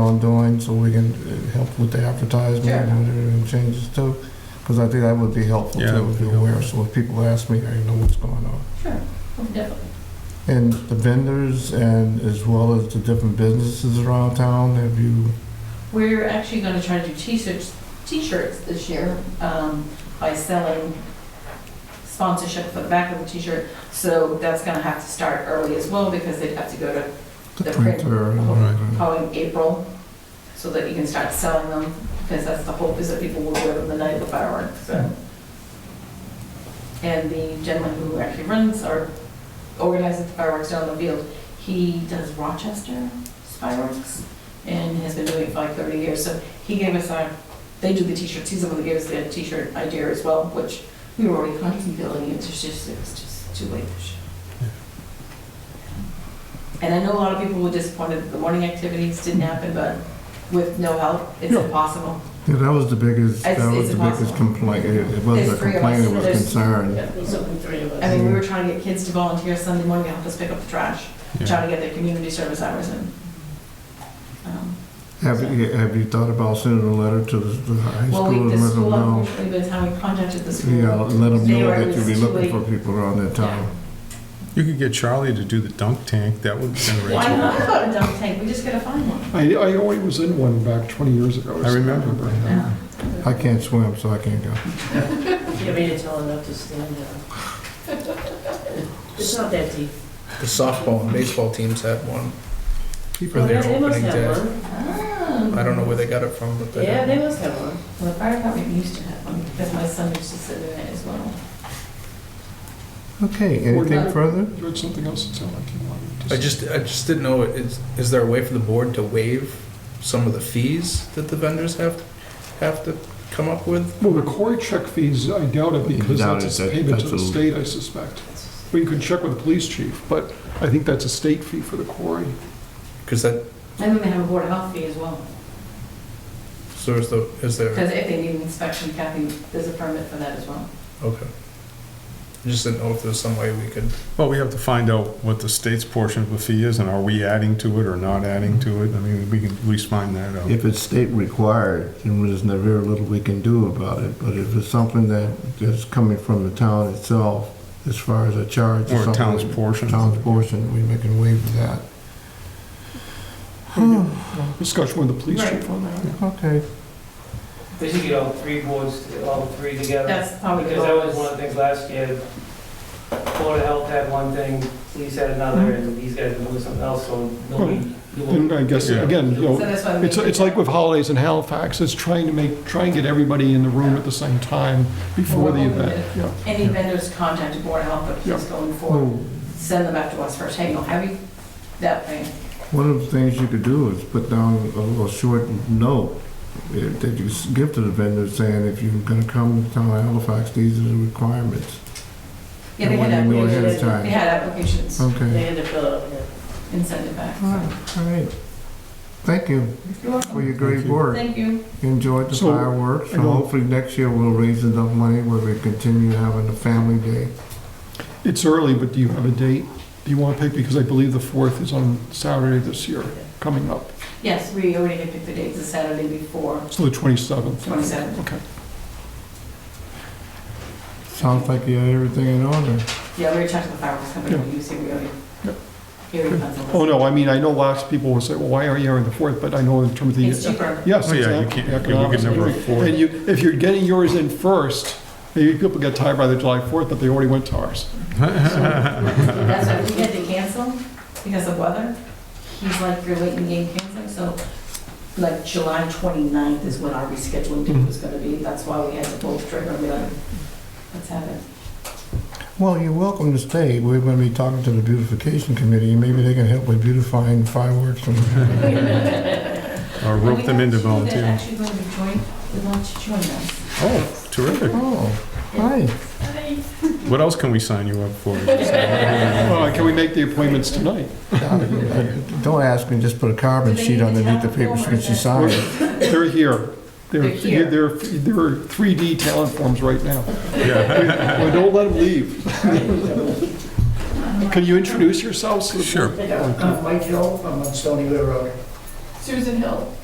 on doing, so we can uh, help with the advertisement Sure. and everything changes too, because I think that would be helpful Yeah, that too, would if be you're aware, so if people ask me, I know what's going on. Sure, oh, definitely. And the vendors and as well as the different businesses around town, have you, We're actually gonna try to do t-shirts, t-shirts this year, um, by selling sponsorship for the back of the t-shirt. So that's gonna have to start early as well, because they'd have to go to the The print. printer? and- All right. probably April, so that you can start selling them, because that's the hope, is that people will wear them the night of the fireworks, so. And the gentleman who actually runs or organizes the fireworks down the field, he does Rochester fireworks, and has been doing it for like 30 years, so he gave us our, they do the t-shirts, he's the one who gave us the t-shirt idea as well, which we were already contemplating, it's just, it was just too late this year. And I know a lot of people were disappointed that the morning activities didn't happen, but with no help, it's Yeah. impossible. Yeah, that was the biggest, It's- that was it's the biggest impossible. complaint, it it wasn't a There's three of complaint, us. it was There's- concern. Yeah, there's only three of I us. mean, we were trying to get kids to volunteer Sunday morning to help us pick up the trash, Yeah. trying to get their community service hours in. Um, Have you, have you thought about sending a letter to the the high Well, school we, and the let them school, know? unfortunately, by the time we contacted the school. Yeah, let them They know were- it that you'll was be too looking late. for people around that town. You could get Charlie to do the dunk tank, that would generate. Why not about a dump tank? We just gotta find one. I, I always was in one back 20 years ago. I remember. Yeah. I can't swim, so I can't go. You made it tall enough to stand up. It's not that deep. The softball and baseball teams had one for Well, their They must opening have day. one. I I don't know where they got it from, but they Yeah, had they one. must have one. Um, Well, the fire department used to have one, because my son used to sit in it as well. Okay, anything Ordinary. further? You had something else to tell, I can't remember. I just, I just didn't know, is, is there a way for the board to waive some of the fees that the vendors have, have to come up with? Well, the quarry check fees, I doubt it, because Doubt that's it, a that- payment to the that's a- state, I suspect. But you can check with the police chief, but I think that's a state fee for the quarry. Because that, And then they have a board of health fee as well. so is the, is there, Because if they need an inspection, Kathy, there's a permit for that as well. okay. I Just didn't know if there's some way we could, Well, we have to find out what the state's portion of the fee is, and are we adding to it or not adding to it? I mean, we can at least find that out. If it's state required, then there's not very little we can do about it. But if it's something that is coming from the town itself, as far as a charge or Or a town's something. portion. Town's portion, we make a waive that. Hmm, Hmm, Discussion with the police Right. chief on that. Okay. We should get all three boards, all three together, That's probably because good. that was one of the things last year. Board of Health had one thing, police had another, and these guys were doing something else, so nobody. And I guess, Yeah. again, you So know, that's why we. it's, it's like with holidays in Halifax, it's trying to make, try and get everybody in the room at the same time before the event. Yeah. Any vendors contact the board of health, but just going forward, Well, Mm. send them back to us first, hey, you know, have you, that thing. one of the things you could do is put down a little short note eh, that you s- give to the vendor saying, if you're gonna come to town of Halifax, these are the requirements. Yeah, they And when had, you know applications. ahead of time. they had applications Okay. They had to fill out, yeah. and send it back. All right, all right. Thank you You're for welcome. your great Thank you. work. Thank you. enjoyed the So, fireworks, I so know- hopefully next year we'll raise enough money where we continue having a family day. It's early, but do you have a date? Do you want to pick, because I believe the 4th is on Saturday this year, coming up, Yes, we already had picked the dates, the Saturday before, so the 27th. 27th. Okay. Sounds like you had everything in order. Yeah, we were talking to the fireworks company, Yeah. we used to, we already, Yep. here it comes. Oh, no, I mean, I know lots of people will say, well, why are you here on the 4th? But I know in terms of the... It's cheaper. Yes, Oh, yeah, you exactly. can't- you can Economics. never afford- And you, if you're getting yours in first, maybe people get tired by the July 4th, but they already went to ours. That's why we had to cancel because of weather. He's like, you're late in the game canceling, so like July 29th is when our rescheduling date was gonna be. That's why we had to pull the trigger and be like, let's have it. Well, you're welcome to stay. We're gonna be talking to the beautification committee, and maybe they can help with beautifying fireworks and Or rope them into They're volunteering. actually going to join, they want to join us. Oh, terrific. Oh, hi. What else can we sign you up for? Well, can we make the appointments tonight? Don't ask me, just put a carbon Do they sheet need to underneath the tell paper them since you or- signed it. They're here. They're, They're here. they're, they're 3D talent forms right now. Yeah, Well, don't let them leave. Can you introduce yourselves? to the- sure. They got- I'm Mike Hill, I'm on Stony River Road. Susan Hill.